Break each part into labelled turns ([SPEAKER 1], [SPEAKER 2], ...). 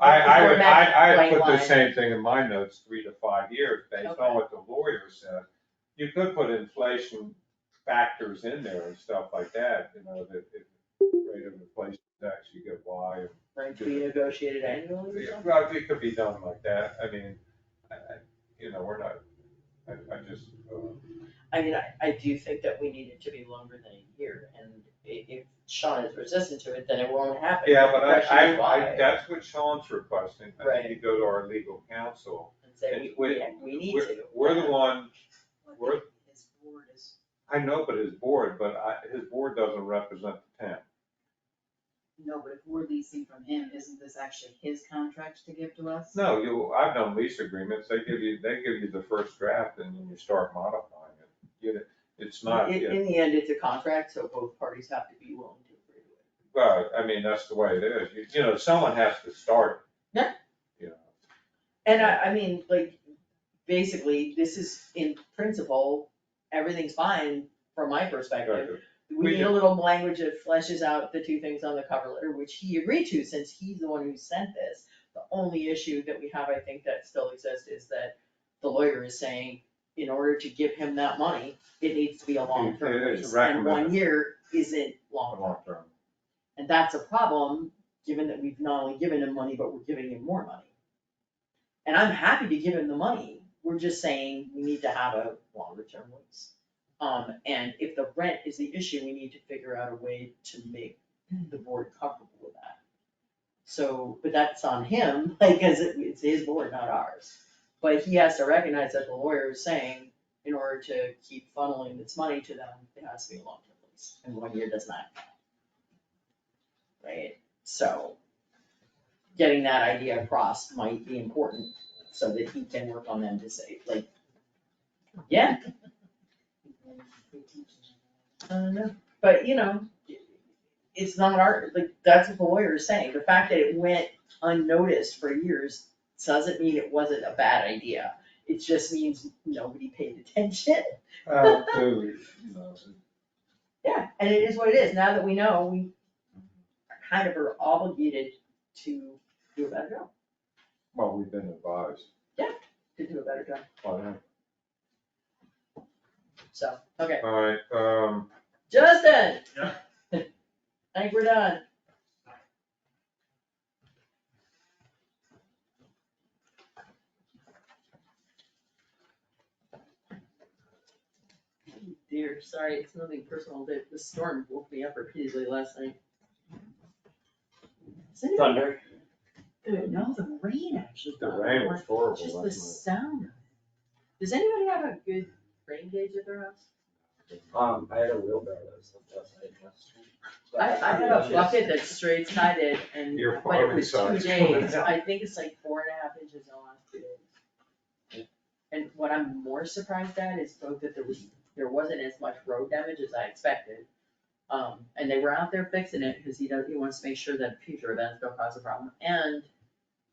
[SPEAKER 1] I, I would,
[SPEAKER 2] Format
[SPEAKER 1] I, I put the
[SPEAKER 2] guideline.
[SPEAKER 1] same thing in my notes, three to five years, based
[SPEAKER 2] Okay.
[SPEAKER 1] on what the lawyer said. You could put inflation factors in there and stuff like that, you know, that if rate of inflation is actually good, why?
[SPEAKER 2] Like to be negotiated annually or
[SPEAKER 1] Yeah,
[SPEAKER 2] something?
[SPEAKER 1] Well, it could be done like that, I mean, I, I, you know, we're not, I, I just, uh,
[SPEAKER 2] I mean, I, I do think that we need it to be longer than a year, and i- if Sean is resistant to it, then it won't happen.
[SPEAKER 1] yeah, but
[SPEAKER 2] The
[SPEAKER 1] I,
[SPEAKER 2] question is
[SPEAKER 1] I, I,
[SPEAKER 2] why,
[SPEAKER 1] that's what Sean's requesting. I think you
[SPEAKER 2] Right.
[SPEAKER 1] go to our legal counsel.
[SPEAKER 2] And say,
[SPEAKER 1] It's
[SPEAKER 2] we,
[SPEAKER 1] with-
[SPEAKER 2] we, we need
[SPEAKER 1] we're-
[SPEAKER 2] to.
[SPEAKER 1] We're the one
[SPEAKER 3] What his board is,
[SPEAKER 1] I know, but his board, but I, his board doesn't represent the town.
[SPEAKER 3] no, but if we're leasing from him, isn't this actually his contract to give to us?
[SPEAKER 1] No, you, I've done lease agreements, they give you, they give you the first draft and then you start modifying it. You- It's not,
[SPEAKER 2] In, in the end, it's a contract, so both parties have to be willing to agree to it.
[SPEAKER 1] well, I mean, that's the way it is, you, you know, someone has to start. it.
[SPEAKER 2] Yeah.
[SPEAKER 1] You know,
[SPEAKER 2] And I, I mean, like, basically, this is in principle, everything's fine from my perspective.
[SPEAKER 1] like,
[SPEAKER 2] We
[SPEAKER 1] We
[SPEAKER 2] need a
[SPEAKER 1] do.
[SPEAKER 2] little language that fleshes out the two things on the cover letter, which he agreed to since he's the one who sent this. The only issue that we have, I think, that still exists is that the lawyer is saying, in order to give him that money, it needs to be a long-term
[SPEAKER 1] It is
[SPEAKER 2] lease. And one
[SPEAKER 1] recommended.
[SPEAKER 2] year isn't
[SPEAKER 1] for
[SPEAKER 2] long-term.
[SPEAKER 1] long term.
[SPEAKER 2] And that's a problem, given that we've not only given him money, but we're giving him more money. And I'm happy to give him the money, we're just saying we need to have a longer term lease. Um, and if the rent is the issue, we need to figure out a way to make the board comfortable with that. So, but that's on him, like, as it, it's his board, not ours. But he has to recognize that the lawyer is saying, in order to keep funneling this money to them, it has to be a long term lease, and one year does not count. Right, so getting that idea across might be important, so that he can work on them to say, like, yeah, I don't know, but you know, it's not our, like, that's what the lawyer is saying, the fact that it went unnoticed for years doesn't mean it wasn't a bad idea. It just means nobody paid attention,
[SPEAKER 1] Uh, so, you know,
[SPEAKER 2] yeah, and it is what it is, now that we know, we kind of are obligated to do a better job,
[SPEAKER 1] Well, we've been advised,
[SPEAKER 2] to do a better job,
[SPEAKER 1] on it.
[SPEAKER 2] so, okay,
[SPEAKER 1] all right, um,
[SPEAKER 2] Justin.
[SPEAKER 4] Yeah.
[SPEAKER 2] I think we're done, Oh, dear, sorry, it's nothing personal, but the storm woke me up repeatedly last night. Isn't it-
[SPEAKER 4] Thunder.
[SPEAKER 2] Good, no, the rain actually.
[SPEAKER 1] the
[SPEAKER 2] got
[SPEAKER 1] rain
[SPEAKER 2] more.
[SPEAKER 1] was horrible
[SPEAKER 2] Just the
[SPEAKER 1] last
[SPEAKER 2] sound of it. Does anybody have a good rain gauge at their house?
[SPEAKER 1] night.
[SPEAKER 4] Um, I had a wheelbarrow that was left outside last week.
[SPEAKER 2] I, I have a bucket that's straight sided and
[SPEAKER 1] Your
[SPEAKER 2] when it
[SPEAKER 1] farming
[SPEAKER 2] was two
[SPEAKER 1] side's
[SPEAKER 2] days,
[SPEAKER 1] coming out.
[SPEAKER 2] I think it's like four and a half inches in the last two days. And what I'm more surprised at is both that there was, there wasn't as much road damage as I expected. Um, and they were out there fixing it because he does, he wants to make sure that future events don't cause a problem and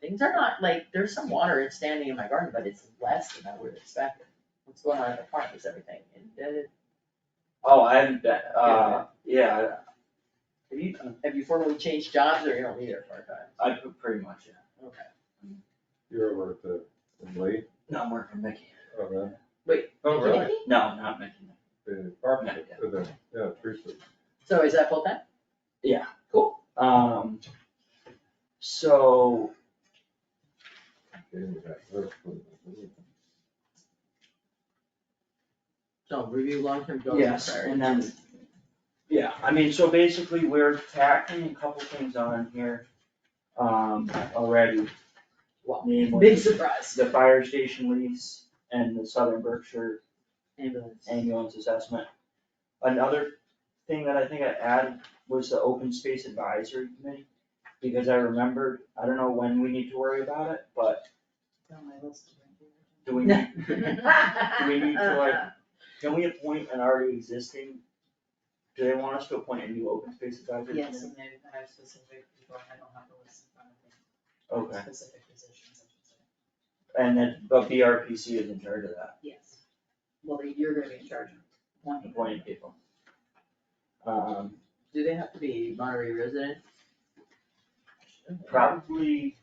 [SPEAKER 2] things are not, like, there's some water it's standing in my garden, but it's less than I would have expected. What's going on in the park is everything, and uh, then it-
[SPEAKER 4] Oh, I haven't been, uh, yeah,
[SPEAKER 2] have you, have you formally changed jobs or you don't need it for a time?
[SPEAKER 4] I, I put pretty much, yeah.
[SPEAKER 2] Okay.
[SPEAKER 1] You're over at the, in Lee,
[SPEAKER 4] No, I'm working with Mickey.
[SPEAKER 1] oh, really?
[SPEAKER 2] Wait,
[SPEAKER 1] Oh, really?
[SPEAKER 4] No, not Mickey.
[SPEAKER 1] The apartment,
[SPEAKER 4] Yeah.
[SPEAKER 1] uh, the, yeah, Teresa.
[SPEAKER 2] So is that full time?
[SPEAKER 4] Um, so,
[SPEAKER 2] So review long-term goals and
[SPEAKER 4] yes,
[SPEAKER 2] priorities.
[SPEAKER 4] and then, yeah, I mean, so basically, we're tackling a couple things on here, um, already.
[SPEAKER 2] Wow.
[SPEAKER 4] Namely,
[SPEAKER 2] Big surprise.
[SPEAKER 4] the fire station lease and the Southern Berkshire
[SPEAKER 2] Ambulance.
[SPEAKER 4] ambulance assessment. Another thing that I think I added was the open space advisory committee, because I remembered, I don't know when we need to worry about it, but
[SPEAKER 3] On my list of things.
[SPEAKER 4] do we, need- do we need to like, can we appoint an already existing? Do they want us to appoint a new open space advisory committee?
[SPEAKER 3] Yes, and they have specific people, I don't have the list in front of me.
[SPEAKER 4] Okay,
[SPEAKER 3] Specific positions, I should say.
[SPEAKER 4] and then, but BRPC is in charge of that,
[SPEAKER 3] Yes. Well, then you're gonna be in charge of appointing.
[SPEAKER 4] appointing people. Um,
[SPEAKER 2] Do they have to be Monterey resident?
[SPEAKER 4] probably